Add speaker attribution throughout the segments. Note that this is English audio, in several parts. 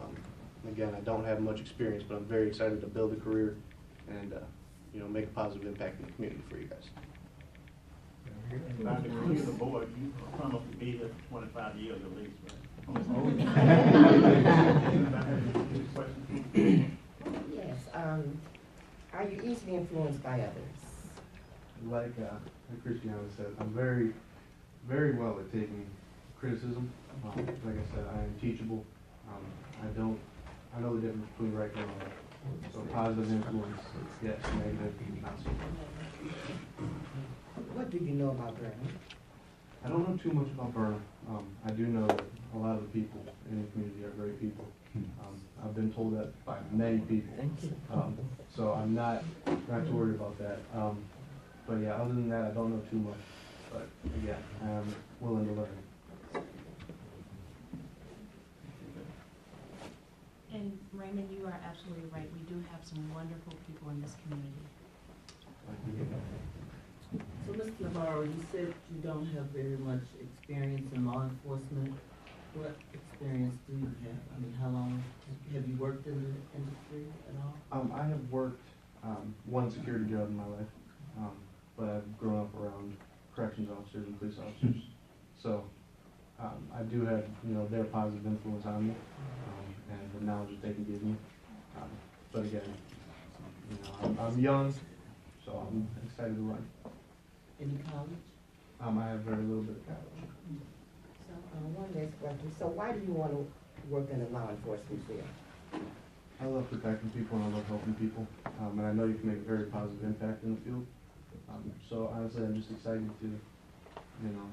Speaker 1: Um, Again, I don't have much experience, but I'm very excited to build a career and, uh, you know, make a positive impact in the community for you guys.
Speaker 2: And I decree of the board, you come up to be here for twenty-five years at least, right?
Speaker 3: Yes, um, are you easily influenced by others?
Speaker 4: like uh, like Christiana said, I'm very, very well at taking criticism. Um, like I said, I am teachable. Um, I don't, I know the difference between right and wrong. So positive influence, yes, negative, not so much.
Speaker 3: What do you know about Vernon?
Speaker 4: I don't know too much about Burnham. Um, I do know that a lot of the people in the community are great people. Um, I've been told that by many people. Um, so I'm not, not too worried about that. Um, but yeah, other than that, I don't know too much. But yeah, I'm willing to learn.
Speaker 5: And Raymond, you are absolutely right. We do have some wonderful people in this community.
Speaker 6: So, Mr. Navarro, you said you don't have very much experience in law enforcement. What experience do you have? I mean, how long, have you worked in the industry at all?
Speaker 4: Um, I have worked um, one security job in my life, um, but I've grown up around corrections officers and police officers. So um, I do have, you know, their positive influence on me um, and the knowledge that they can give me. Um, but again, you know, I'm, I'm young, so I'm excited to run.
Speaker 6: Any college?
Speaker 4: Um, I have very little bit of college.
Speaker 3: So, uh, one last question, so why do you wanna work in the law enforcement field?
Speaker 4: I love protecting people and I love helping people, um, and I know you can make a very positive impact in the field. Um, so honestly, I'm just excited to, you know,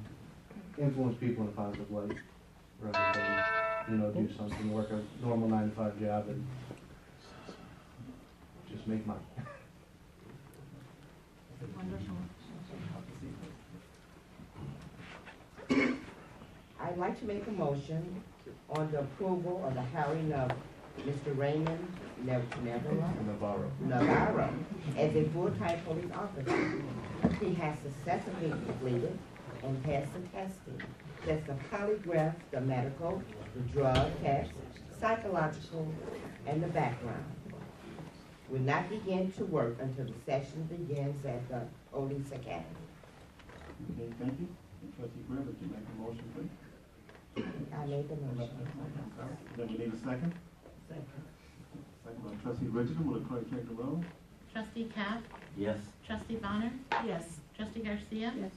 Speaker 4: influence people in a positive light rather than, you know, do something, work a normal nine to five job and just make money.
Speaker 5: Wonderful.
Speaker 3: I'd like to make a motion on the approval of the hiring of Mr. Raymond Nev- Navarro,
Speaker 4: Navarro.
Speaker 3: Navarro as a full-time police officer. He has successfully completed and passed the testing. That's the polygraph, the medical, the drug test, psychological, and the background. Will not begin to work until the session begins at the Police Academy.
Speaker 2: Okay, thank you. And Trustee Greer, would you make a motion, please?
Speaker 3: I made the motion.
Speaker 2: Then we need a second. Second by trustee Richardson, will the clerk take the roll?
Speaker 5: Trustee Cap?
Speaker 7: Yes.
Speaker 5: Trustee Bonner? Yes. Trustee Garcia?
Speaker 6: Yes.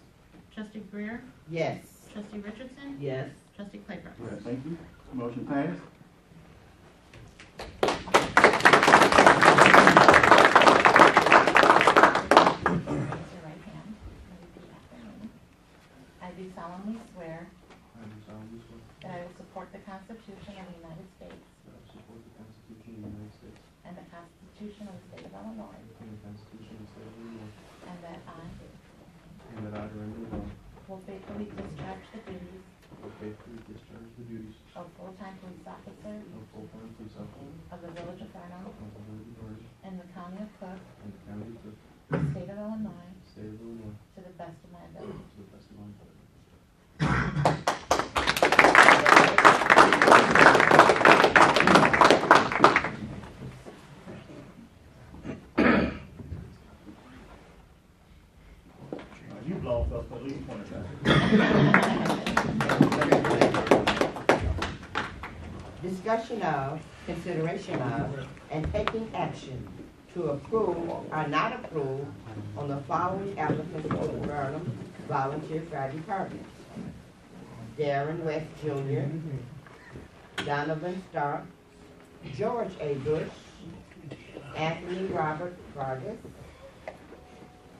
Speaker 5: Trustee Greer?
Speaker 3: Yes.
Speaker 5: Trustee Richardson?
Speaker 6: Yes.
Speaker 5: Trustee Claybrook?
Speaker 2: All right, Thank you. Motion passed.
Speaker 5: Raise your right hand. Repeat after me. I do solemnly swear
Speaker 4: I do solemnly swear
Speaker 5: that I will support the Constitution of the United States
Speaker 4: that I will support the Constitution of the United States
Speaker 5: and the Constitution of the State of Illinois,
Speaker 4: and the Constitution of the State of Illinois,
Speaker 5: and that I
Speaker 4: and that I during the law
Speaker 5: will faithfully discharge the duties
Speaker 4: will faithfully discharge the duties
Speaker 5: of full-time police officer
Speaker 4: of full-time police officer
Speaker 5: of the Village of Vernon
Speaker 4: of the Village of Orange
Speaker 5: in the County of Cook,
Speaker 4: and the County of Cook,
Speaker 5: the State of Illinois,
Speaker 4: State of Illinois,
Speaker 5: to the best of my ability.
Speaker 4: to the best of my ability.
Speaker 2: Uh, You've lost us for at least twenty-five.
Speaker 3: Discussion of, consideration of, and taking action to approve or not approve on the following applicants for the Burnham Volunteer Fire Department. Darren West Jr., Donovan Stark, George A. Bush, Anthony Robert Vargas.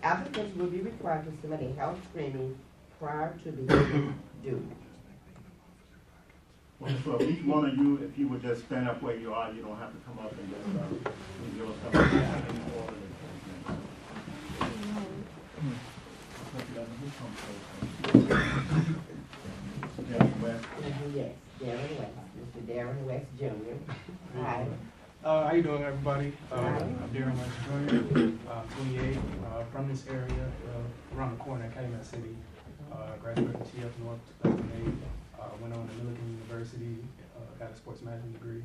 Speaker 3: Applicants will be required to submit a health screening prior to the due.
Speaker 2: Well, So if each one of you, if you would just stand up where you are, you don't have to come up and just, uh, give us some. Yeah, well,
Speaker 3: Mhm, Yes, Darren West, Mr. Darren West Jr. Hi.
Speaker 8: Uh, how you doing, everybody? Uh,
Speaker 3: Hi.
Speaker 8: I'm Darren Lynch Jr., uh, 28, uh, from this area, uh, around the corner, Calumet City. Uh, graduated TF North 2008, uh, went on to Millikan University, uh, got a sports management degree.